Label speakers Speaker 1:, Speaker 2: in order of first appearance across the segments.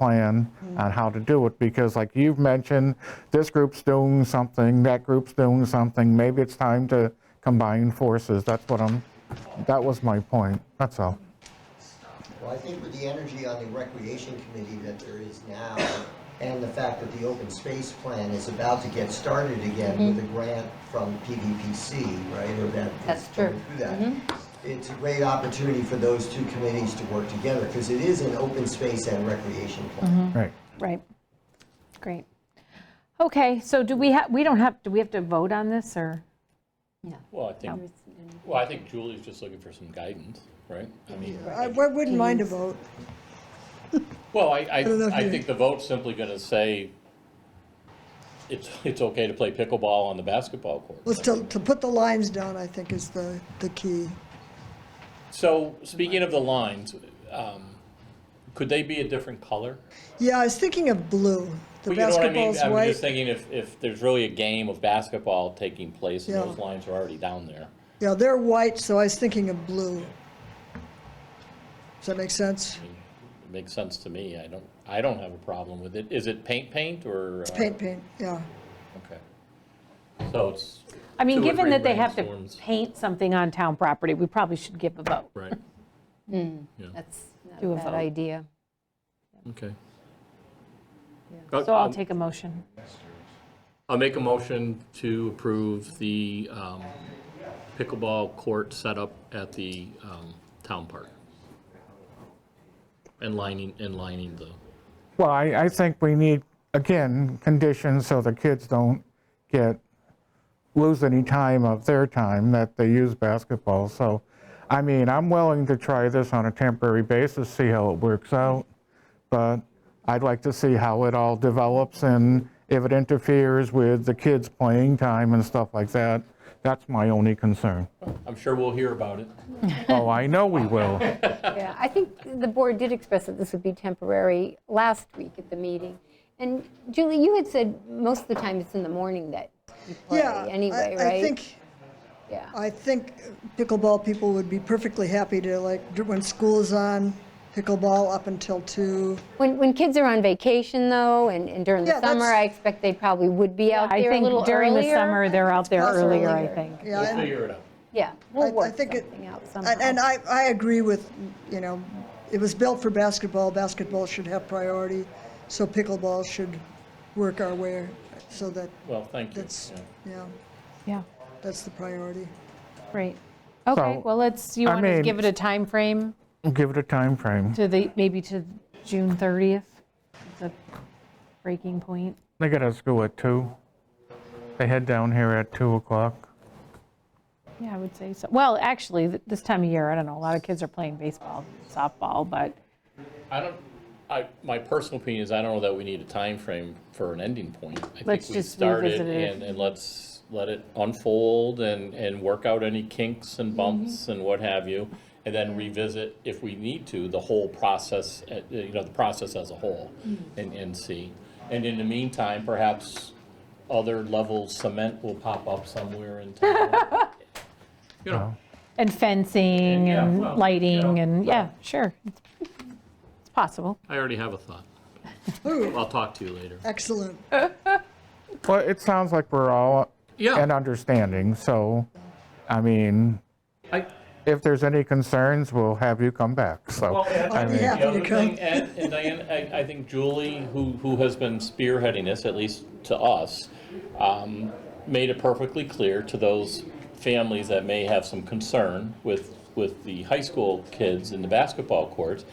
Speaker 1: plan on how to do it, because like you've mentioned, this group's doing something, that group's doing something, maybe it's time to combine forces, that's what I'm, that was my point, that's all.
Speaker 2: Well, I think with the energy on the recreation committee that there is now, and the fact that the open space plan is about to get started again with a grant from PVPC, right, or that. is
Speaker 3: Mm-hmm. That's true. Mm-hmm.
Speaker 2: coming through that. It's a great opportunity for those two committees to work together, because it is an open space and recreation plan.
Speaker 1: Right.
Speaker 3: Right. Great. Okay, so do we have, we don't have, do we have to vote on this, or?
Speaker 4: Well, I think, well, I think Julie's just looking for some guidance, right? I mean,
Speaker 5: I I wouldn't mind a vote.
Speaker 4: well, I, I,
Speaker 5: don't know if
Speaker 4: I
Speaker 5: you-
Speaker 4: think the vote's simply gonna say it's, it's okay to play pickleball on the basketball court.
Speaker 5: Let's to, to put the lines down, I think is the, the key.
Speaker 4: So, speaking of the lines, um, could they be a different color?
Speaker 5: Yeah, I was thinking of blue.
Speaker 4: Well,
Speaker 5: The
Speaker 4: you know what I
Speaker 5: basketball's
Speaker 4: mean? I'm just
Speaker 5: white.
Speaker 4: thinking if, if there's really a game of basketball taking place and
Speaker 5: Yeah.
Speaker 4: those lines are already down there.
Speaker 5: Yeah, they're white, so I was thinking of blue. Does that make sense?
Speaker 4: It Makes sense to me. I don't, I don't have a problem with it. Is it paint, paint, or? uh,
Speaker 5: Paint, paint, yeah.
Speaker 4: Okay. So it's.
Speaker 3: I mean,
Speaker 4: two or
Speaker 3: given
Speaker 4: three
Speaker 3: that they have to
Speaker 4: rainstorms.
Speaker 3: paint something on town property, we probably should give a vote.
Speaker 4: Right,
Speaker 6: That's not
Speaker 3: Do a
Speaker 6: a
Speaker 3: vote.
Speaker 6: bad idea.
Speaker 4: okay.
Speaker 3: So I'll take a motion.
Speaker 4: I'll make a motion to approve the um, pickleball court setup at the um, town park. And lining, and lining the,
Speaker 1: Well, I, I think we need, again, conditions so the kids don't get, lose any time of their time that they use basketball. So, I mean, I'm willing to try this on a temporary basis, see how it works out. But I'd like to see how it all develops and if it interferes with the kids' playing time and stuff like that. That's my only concern.
Speaker 4: I'm sure we'll hear about it.
Speaker 1: Oh, I know we will.
Speaker 6: Yeah, I think the board did express that this would be temporary last week at the meeting. And Julie, you had said most of the time it's in the morning that you play
Speaker 5: Yeah. I-
Speaker 6: anyway, right?
Speaker 5: I think,
Speaker 6: Yeah,
Speaker 5: I think pickleball people would be perfectly happy to like, do- when school is on, pickleball up until two.
Speaker 6: when, when kids are on vacation though, and and during the
Speaker 5: Yeah, that's-
Speaker 6: summer, I expect they probably would be out
Speaker 3: I
Speaker 6: there a
Speaker 3: think
Speaker 6: little
Speaker 3: during the
Speaker 6: earlier.
Speaker 3: summer, they're out there
Speaker 5: possible
Speaker 3: earlier, I
Speaker 6: earlier.
Speaker 3: think.
Speaker 5: Yeah,
Speaker 4: We'll
Speaker 5: and-
Speaker 4: figure it out.
Speaker 6: Yeah,
Speaker 5: I-
Speaker 6: we'll
Speaker 5: I
Speaker 6: work
Speaker 5: think it-
Speaker 6: something out
Speaker 5: and-
Speaker 6: somehow.
Speaker 5: And I, I agree with, you know, it was built for basketball, basketball should have priority, so pickleball should work our way, so that,
Speaker 4: Well, thank you.
Speaker 5: that's,
Speaker 4: Yeah.
Speaker 5: yeah,
Speaker 3: Yeah,
Speaker 5: that's the priority.
Speaker 3: great. Okay,
Speaker 1: So,
Speaker 3: well, let's, you
Speaker 1: I
Speaker 3: want to
Speaker 1: mean-
Speaker 3: give it a time frame
Speaker 1: Give it a time frame.
Speaker 3: to the, maybe to June 30th? The breaking point?
Speaker 1: They got out of school at two. They head down here at 2 o'clock.
Speaker 3: Yeah, I would say so. Well, actually, th- this time of year, I don't know, a lot of kids are playing baseball, softball, but
Speaker 4: I don't, I, my personal opinion is I don't know that we need a time frame for an ending point. I think
Speaker 3: Let's
Speaker 4: we
Speaker 3: just
Speaker 4: start it
Speaker 3: revisit it.
Speaker 4: And, and let's let it unfold and, and work out any kinks
Speaker 3: Mm-hmm.
Speaker 4: and bumps and what have you. And then revisit, if we need to, the whole process, uh, you know, the process as a whole
Speaker 3: Mm-hmm.
Speaker 4: and, and see. And in the meantime, perhaps other level cement will pop up somewhere in town. You know,
Speaker 3: And fencing
Speaker 4: And, yeah,
Speaker 3: and
Speaker 4: well, you
Speaker 3: lighting
Speaker 4: know,
Speaker 3: and, yeah, sure. It's it's possible.
Speaker 4: I already have a thought.
Speaker 5: Ooh,
Speaker 4: I'll talk to you later.
Speaker 5: excellent.
Speaker 1: Well, it sounds like we're all
Speaker 4: Yeah.
Speaker 1: an understanding, so, I mean,
Speaker 4: I-
Speaker 1: if there's any concerns, we'll have you come back, so.
Speaker 4: Well, Ed,
Speaker 1: I mean-
Speaker 5: Yeah.
Speaker 4: the other
Speaker 5: Happy to come.
Speaker 4: thing, Ed and Diane, I, I think Julie, who, who has been spearheading this, at least to us, um, made it perfectly clear to those families that may have some concern with, with the high school kids in the basketball courts,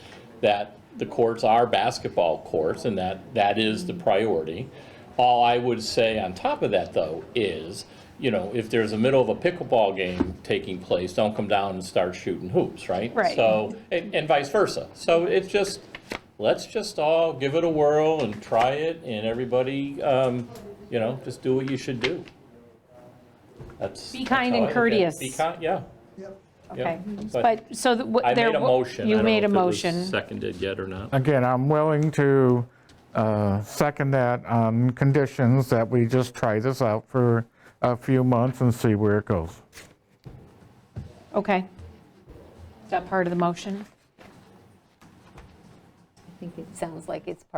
Speaker 4: that the courts are basketball courts and that, that is the priority. All I would say on top of that, though, is, you know, if there's a middle of a pickleball game taking place, don't come down and start shooting hoops, right?
Speaker 3: Right.
Speaker 4: So, and, and vice versa. So it's just, let's just all give it a whirl and try it, and everybody, um, you know, just do what you should do. That's.
Speaker 3: Be
Speaker 4: that's
Speaker 3: kind and
Speaker 4: how I look at it.
Speaker 3: courteous.
Speaker 4: Be kind, yeah.
Speaker 5: Yep.
Speaker 3: Okay.
Speaker 4: but
Speaker 3: But, so that what
Speaker 4: I
Speaker 3: there.
Speaker 4: made a
Speaker 3: wa-
Speaker 4: motion. I
Speaker 3: You
Speaker 4: don't
Speaker 3: made
Speaker 4: know
Speaker 3: a
Speaker 4: if it was
Speaker 3: motion.
Speaker 4: Seconded yet or not.
Speaker 1: Again, I'm willing to uh, second that on conditions that we just try this out for a few months and see where it goes.
Speaker 3: Okay. Is that part of the motion?
Speaker 6: I think it sounds like it's part